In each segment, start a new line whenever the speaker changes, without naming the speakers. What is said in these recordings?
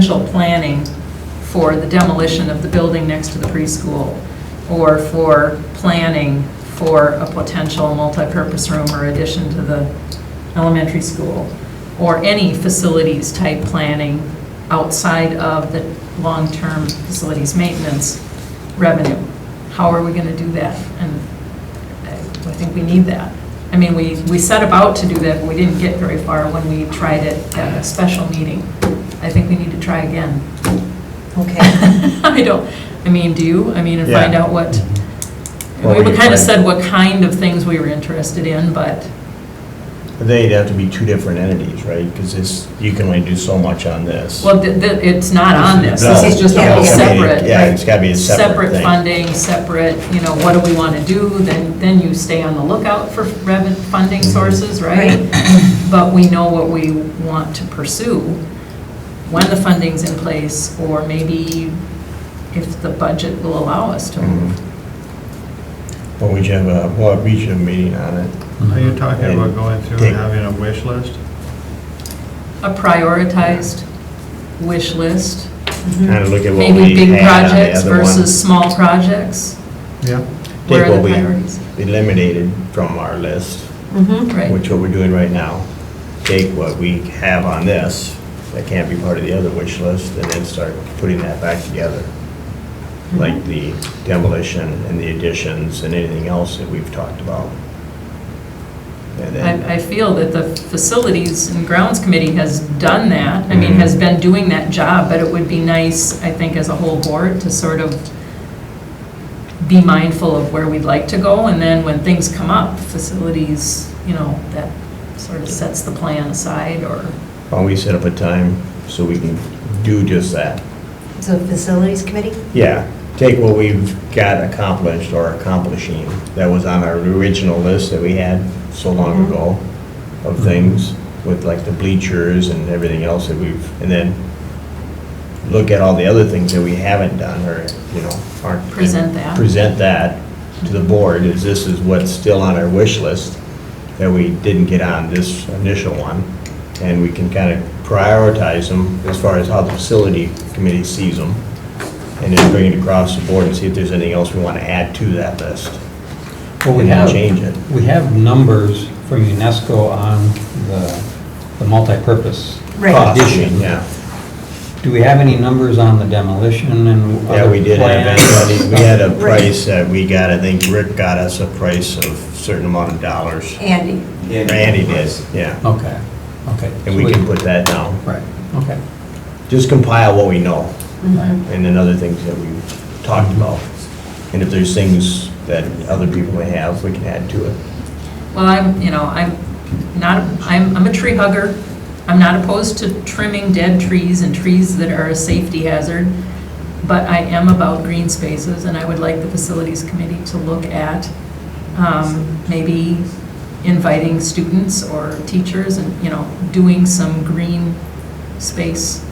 potential planning for the demolition of the building next to the preschool, or for planning for a potential multipurpose room or addition to the elementary school, or any facilities-type planning outside of the long-term facilities maintenance revenue. How are we going to do that? And I I think we need that. I mean, we, we set about to do that, but we didn't get very far when we tried it at a special meeting. I think we need to try again.
Okay,
I don't, I mean, do you? I mean, and find
Yeah. Mm-hmm.
out what,
What
we
we
kind
plan.
of said what kind of things we were interested in, but,
But They'd have to be two different entities, right? Because this, you can only do so much on this.
well, th- th- it's not on this. This is just a
No,
whole
Yeah, it's gotta
separate.
be- Yeah, it's gotta be a separate
separate
thing.
funding, separate, you know, what do we want to do? Then, then you stay on the lookout for revenue, funding
Mm-hmm.
sources, right? But we know what we want to pursue, when the funding's in place, or maybe if the budget will allow us to
Mhm.
move.
But we should have a, well, we should have a meeting on it.
Mm-hmm.
Are you talking about going through
Take-
and having a wish list?
A prioritized wish list,
Mm-hmm.
Kind of look at what
maybe
we
big
had on the
projects
other
versus
one.
small projects.
Yeah.
Where
Take
are
what
the
we
priorities?
eliminated from our list,
Right,
Mm-hmm.
which what we're doing right now. Take what we have on this, that can't be part of the other wish list, and then start putting that back together. Like the demolition and the additions and anything else that we've talked about. And then.
I, I feel that the Facilities and Grounds Committee has done that, I
Mm-hmm.
mean, has been doing that job, but it would be nice, I think, as a whole board, to sort of be mindful of where we'd like to go, and then when things come up, facilities, you know, that sort of sets the plan aside, or,
Why do we set up a time so we can do just that?
so facilities committee?
Yeah, take what we've got accomplished or accomplishing that was on our original list that we had so long ago of things with like the bleachers and everything else that we've, and then look at all the other things that we haven't done or, you know, aren't.
Present that.
Present that to the board is this is what's still on our wish list that we didn't get on this initial one. And we can kind of prioritize them as far as how the facility committee sees them. And then bring it across the board and see if there's anything else we want to add to that list.
Well, we
And then
have,
change it.
we have numbers from UNESCO on the, the multipurpose
Right.
addition.
Yeah,
Do we have any numbers on the demolition and
yeah,
other
we did have that.
plans?
We had a price that we got, I think Rick got us a price of certain amount of dollars.
Andy,
Randy did, yeah.
Okay, okay.
And we
So
can put that down.
Right, okay.
Just compile what we know.
Right.
and then other things that we've talked about. And if there's things that other people may have, we can add to it.
well, I'm, you know, I'm not, I'm, I'm a tree hugger, I'm not opposed to trimming dead trees and trees that are a safety hazard, but I am about green spaces, and I would like the Facilities Committee to look at um, maybe inviting students or teachers and, you know, doing some green space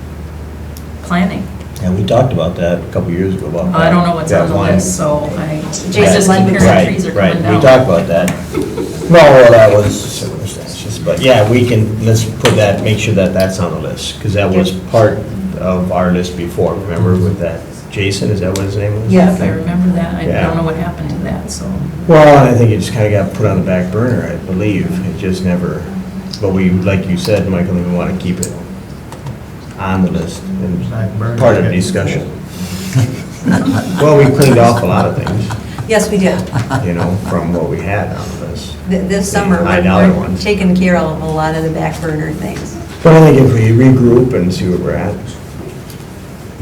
planning.
And we talked about that a couple years ago about
I don't know what's
that
on the
one.
list, so I, I
Jason
just keep
Lemon.
hearing trees are coming
Right, right,
down.
we talked about that. No, well, that was circumstances, but yeah, we can, let's put that, make sure that that's on the list, because that was part of our list before, remember with that, Jason, is that what his name was?
Yeah.
If I remember that, I
Yeah.
don't know what happened to that, so.
Well, and I think it just kind of got put on the back burner, I believe. It just never, but we, like you said, Michael, we want to keep it on the list and
Back burner.
part of the discussion. Well, we cleaned off a lot of things,
yes, we did.
you know, from what we had on the list.
Th- This summer,
High dollar
we're- we're
ones.
taking care of a lot of the back burner things.
But I think if we regroup and see where we're at.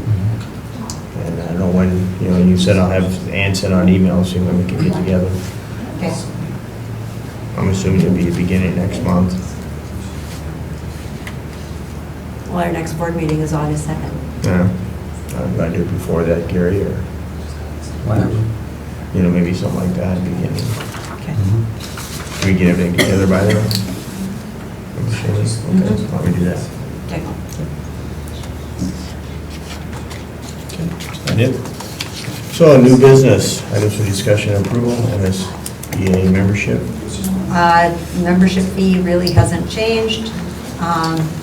Mm-hmm. And I don't know when, you know, you said I'll have Ann send out emails, see when we can get together.
Okay.
I'm assuming it'll be beginning next month.
Well, our next board meeting is August 2nd.
Yeah, I'm gonna do it before that, Gary, or,
Whatever.
you know, maybe something like that, beginning.
Okay.
Mhm.
Can we get everything together by then? I'm sure, okay, why don't we do that?
Okay.
I did. So, new business, items for discussion and approval, MSBA membership.
Uh, Membership fee really hasn't changed. Um,